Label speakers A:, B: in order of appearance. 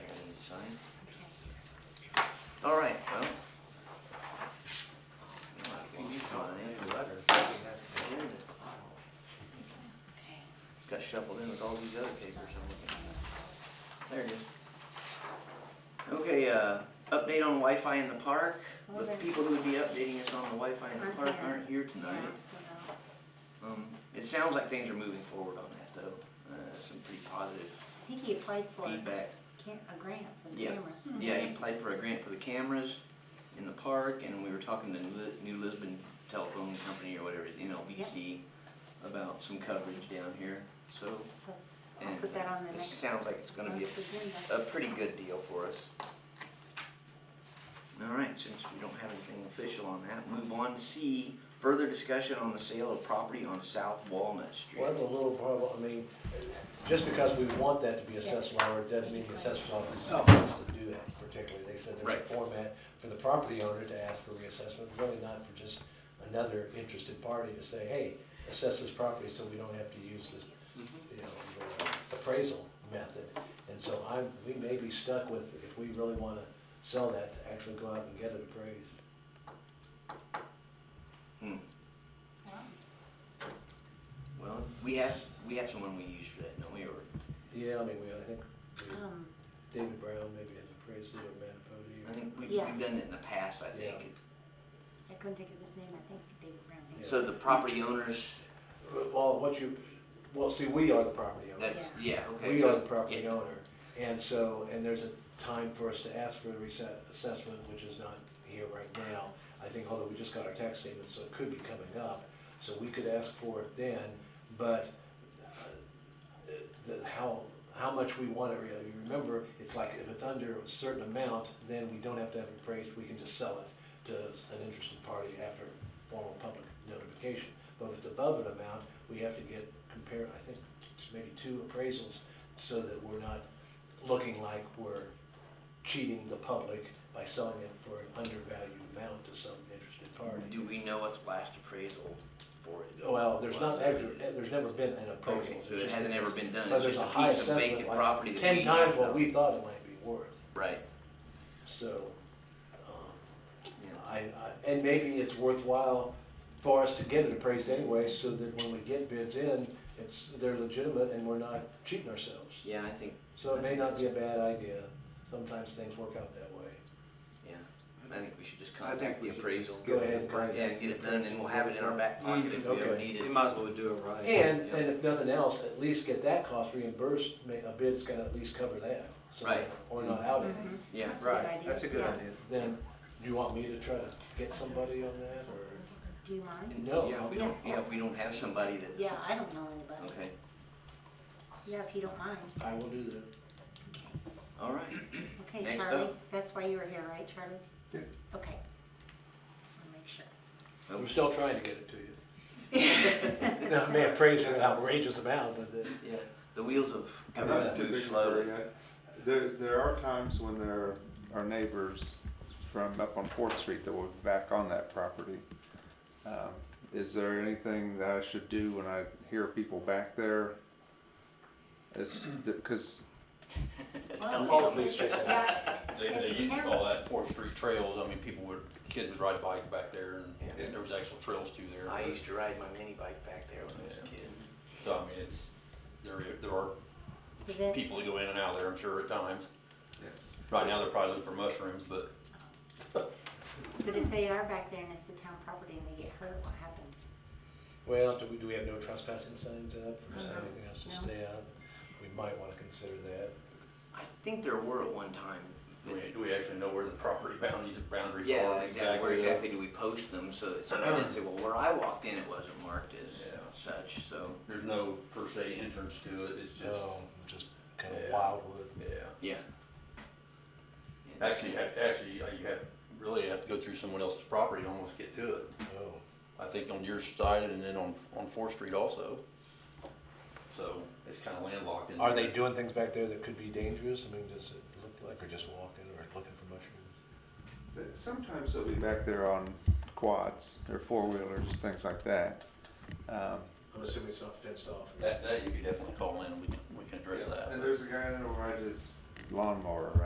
A: All right, well. Well, I used on an empty letter. It Got shuffled in with all these other papers I'm looking at. There it is. Okay, uh, update on Wi-Fi in the park. The
B: Okay.
A: people who would be updating us on the Wi-Fi in the
B: Aren't
A: park
B: here.
A: aren't here tonight.
B: Yeah, so no.
A: Um, it sounds like things are moving forward on that though. Uh, some pretty positive
B: I think he applied for a
A: feedback.
B: can- a grant for the
A: Yeah.
B: cameras.
A: Yeah, he applied for a grant for the cameras in the park, and we were talking to Li- New Lisbon Telephone Company or whatever it is, NLBC, about some coverage down here, so.
B: So I'll
A: and
B: put that on the
A: it
B: next
A: Sounds like it's gonna be
B: month's agenda.
A: a, a pretty good deal for us. All right, since we don't have anything official on that, move on to C, further discussion on the sale of property on South Walnut Street.
C: Well, that's a little problem, I mean, just because we want that to be assessed lower, doesn't mean the assessor's office wants to do that particularly. They said there's a
A: Right.
C: format for the property owner to ask for reassessment, really not for just another interested party to say, hey, assess this property so we don't have to use this, you know, the appraisal method. And so I'm, we may be stuck with, if we really wanna sell that, to actually go out and get it appraised.
A: Hmm.
B: Wow.
A: Well, we have, we have someone we use for that, don't we, or?
C: Yeah, I mean, we, I think, we-
B: Um,
C: David Brown maybe has appraised it, or Matt
A: I
C: Pody, or.
A: think we've,
B: Yeah.
A: we've done it in the past, I think.
B: I couldn't think of his name, I think David Brown. did.
A: So the property owners,
C: Well, what you, well, see, we are the property owner.
A: that's, yeah, okay.
C: We
A: so-
C: are the property
A: yeah.
C: owner. And so, and there's a time for us to ask for the reset, assessment, which is not here right now. I think, although we just got our tax statement, so it could be coming up. So we could ask for it then, but uh, the, how, how much we want it, you know, you remember, it's like if it's under a certain amount, then we don't have to have it appraised, we can just sell it to an interested party after formal public notification. But if it's above an amount, we have to get, compare, I think, maybe two appraisals, so that we're not looking like we're cheating the public by selling it for an undervalued amount to some interested party.
A: Do we know what's last appraisal for it?
C: Well, there's not, there's never been an appraisal.
A: Okay, so
C: It's
A: it
C: just-
A: hasn't ever been done,
C: but
A: it's
C: there's
A: just
C: a
A: a
C: high
A: piece of
C: assessment,
A: vacant
C: like
A: property that we.
C: Ten times what
A: don't-
C: we thought it might be worth,
A: Right,
C: so, um,
A: yeah,
C: I, I, and maybe it's worthwhile for us to get it appraised anyway, so that when we get bids in, it's, they're legitimate and we're not cheating ourselves.
A: yeah, I think,
C: So it may not be a bad idea, sometimes things work out that way.
A: yeah, I think we should just
D: I think
A: contact the
D: we should
A: appraisal.
D: just
C: Go
D: go
C: ahead
D: ahead
C: and bring
D: and
C: it.
A: Yeah, and get it done, and we'll have it in our back pocket if we ever
C: Okay.
A: need
D: You
A: it.
D: might as well do it right.
C: And,
A: Yeah.
C: and if nothing else, at least get that cost reimbursed, ma- a bid's gotta at least cover that. so
A: Right.
C: Or not out any.
B: Mhm.
A: Yeah,
B: That's a good
D: Right,
B: idea.
D: that's a good
B: Yeah.
D: idea.
C: Then, do you want me to try to get somebody on that, or?
B: Do you mind?
A: And,
C: No.
A: Yeah, we don't, yeah, we don't have somebody that,
B: Yeah, I don't know anybody.
A: okay,
B: Yeah, if you don't mind.
C: I will do that.
A: all right,
B: Okay,
A: Next
B: Charlie,
A: up.
B: that's why you were here, right, Charlie?
D: Yeah.
B: Okay. Just wanna make sure.
C: We're still trying to get it to you. Now, I may have praised for an outrageous amount, but the,
A: yeah, the wheels of
E: And that's
A: government
E: the
A: move
E: big
A: slowly.
E: thing. There, there are times when there are neighbors from up on Fourth Street that will be back on that property. Um, Is there anything that I should do when I hear people back there? Is, because
B: Well,
A: Call
C: the police station.
B: Yeah,
F: They, they used to call that Fourth Street Trails, I mean, people would, kids would ride bikes back there,
A: Yeah.
F: and there was actual trails too there.
A: I used to ride my mini bike back there when I was a kid.
F: So, I mean, it's, there, i- there are
B: event-
F: people that go in and out there, I'm sure, at times. Right now, they're probably looking for mushrooms, but
B: But if they are back there and it's the town property and they get hurt, what happens?
C: well, do we, do we have no trespassing signs up, or is there
B: No.
C: anything else to
B: No.
C: stay out? We might wanna consider that.
A: I think there were at one time.
F: do we, do we actually know where the property boundaries, boundaries
A: Yeah,
F: are
A: exactly, where
F: exactly?
A: exactly do we post them, so that somebody didn't say, well, where I walked in, it wasn't marked as
F: Yeah.
A: such, so,
F: There's no per se entrance to it, it's just,
C: So, just kinda
F: Yeah.
C: wildwood.
F: yeah.
A: yeah. Yeah,
F: Actually, you have, actually, you have, really have to go through someone else's property to almost get to it.
C: Oh,
F: I think on your side and then on, on Fourth Street also. So it's kind of landlocked in
C: Are
F: there.
C: they doing things back there that could be dangerous? I mean, does it look like they're just walking or looking for mushrooms?
E: sometimes they'll be back there on quads or four-wheelers, things like that. Um,
C: I'm assuming it's not fenced off.
F: That, that you could definitely call in and we can, we can address that.
E: And there's a guy that'll ride his lawnmower around.